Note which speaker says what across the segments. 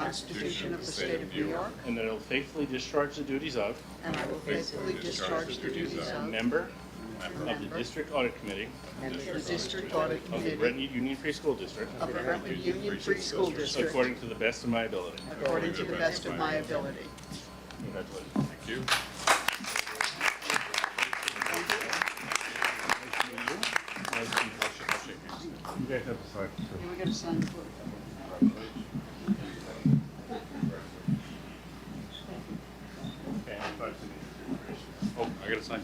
Speaker 1: Constitution of the State of New York,
Speaker 2: and that I will faithfully discharge the duties of
Speaker 1: and I will faithfully discharge the duties of
Speaker 2: member of the
Speaker 1: member
Speaker 2: District Audit Committee
Speaker 1: and the District Audit
Speaker 2: of the
Speaker 1: Committee
Speaker 2: Brentwood Union Free School District
Speaker 1: of the Brentwood Union Free School District
Speaker 2: according to the best of my ability.
Speaker 1: according to the best of my ability.
Speaker 2: Congratulations.
Speaker 3: Thank you.
Speaker 2: Nice to meet you. You guys have to sign.
Speaker 1: You were going to sign the board.
Speaker 2: Okay, I'm about to-
Speaker 3: Oh, I gotta sign.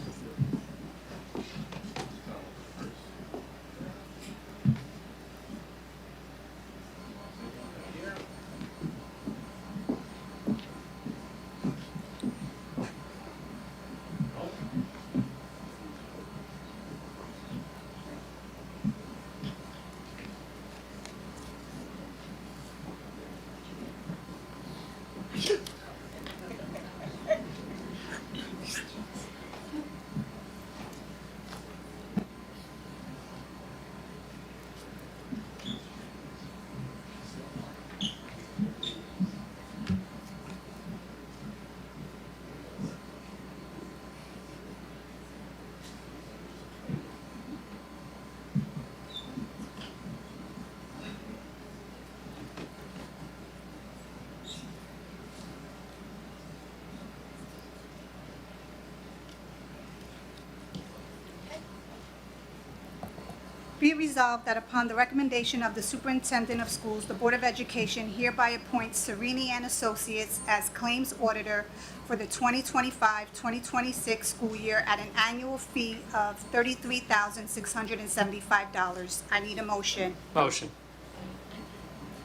Speaker 4: Be resolved that upon the recommendation of the Superintendent of Schools, the Board of Education hereby appoints Serini and Associates as Claims Auditor for the 2025-2026 school year at an annual fee of $33,675. I need a motion.
Speaker 5: Motion.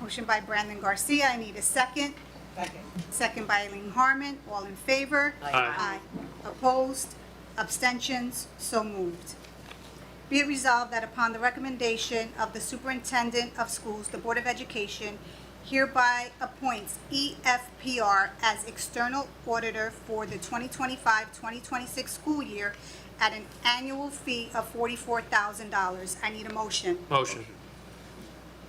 Speaker 4: Motion by Brandon Garcia, I need a second. Second. Second by Eileen Harmon, all in favor?
Speaker 5: Aye.
Speaker 4: Opposed? Abstentions? So moved. Be it resolved that upon the recommendation of the Superintendent of Schools, the Board of Education hereby appoints E EFPR as external auditor for the 2025-2026 school year at an annual fee of $44,000. I need a motion.
Speaker 5: Motion.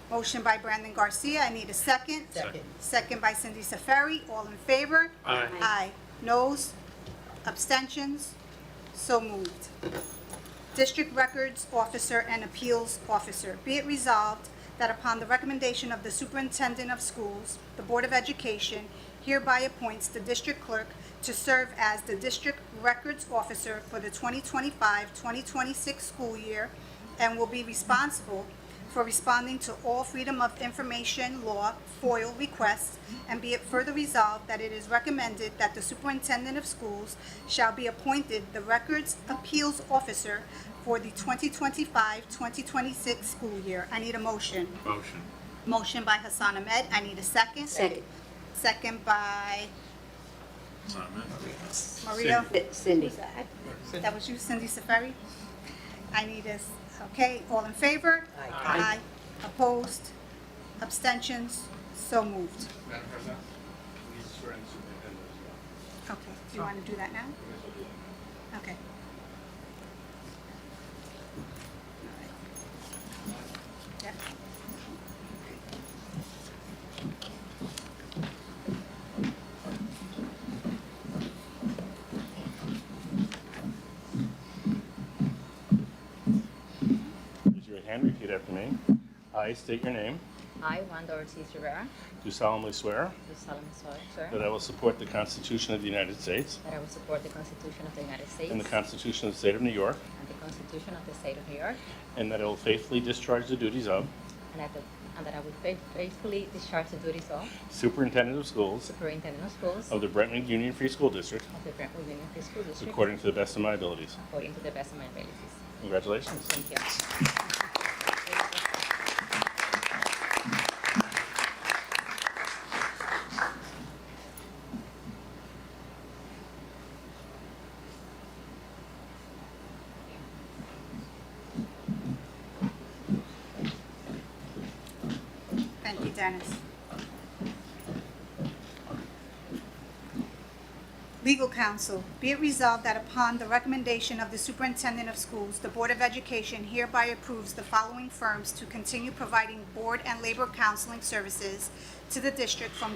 Speaker 4: Motion by Brandon Garcia, I need a second.
Speaker 5: Second.
Speaker 4: Second by Cindy Safari, all in favor?
Speaker 5: Aye.
Speaker 4: Aye. Noes? Abstentions? So moved. District Records Officer and Appeals Officer. Be it resolved that upon the recommendation of the Superintendent of Schools, the Board of Education hereby appoints the District Clerk to serve as the District Records Officer for the 2025-2026 school year and will be responsible for responding to all Freedom of Information Law FOIL requests, and be it further resolved that it is recommended that the superintendent of schools shall be appointed the Records Appeals Officer for the 2025-2026 school year. I need a motion.
Speaker 3: Motion.
Speaker 4: Motion by Hassan Ahmed, I need a second.
Speaker 6: Second.
Speaker 4: Second by Maria.
Speaker 6: Cindy.
Speaker 4: That was you, Cindy Safari? I need this, okay, all in favor? Aye. Opposed? Abstentions? So moved.
Speaker 3: Madam President, please swear in superintendent as well.
Speaker 4: Okay, do you want to do that now? Okay. Yep.
Speaker 2: Raise your right hand, repeat after me. I state your name,
Speaker 7: I, Wanda Ortiz Rivera,
Speaker 2: do solemnly swear
Speaker 7: do solemnly swear
Speaker 2: that I will support the Constitution of the United States
Speaker 7: that I will support the Constitution of the United States
Speaker 2: and the Constitution of the State of New York,
Speaker 7: and the Constitution of the State of New York,
Speaker 2: and that I will faithfully discharge the duties of
Speaker 7: and that, the, and that I will faith- faithfully discharge the duties of
Speaker 2: Superintendent of Schools
Speaker 7: Superintendent of Schools
Speaker 2: of the Brentwood Union Free School District
Speaker 7: of the Brentwood Union Free School District
Speaker 2: according to the best of my abilities.
Speaker 7: according to the best of my abilities.
Speaker 2: Congratulations.
Speaker 7: Thank you.
Speaker 4: Thank you, Dennis. Legal counsel, be it resolved that upon the recommendation of the superintendent of schools, the Board of Education hereby approves the following firms to continue providing board and labor counseling services to the district from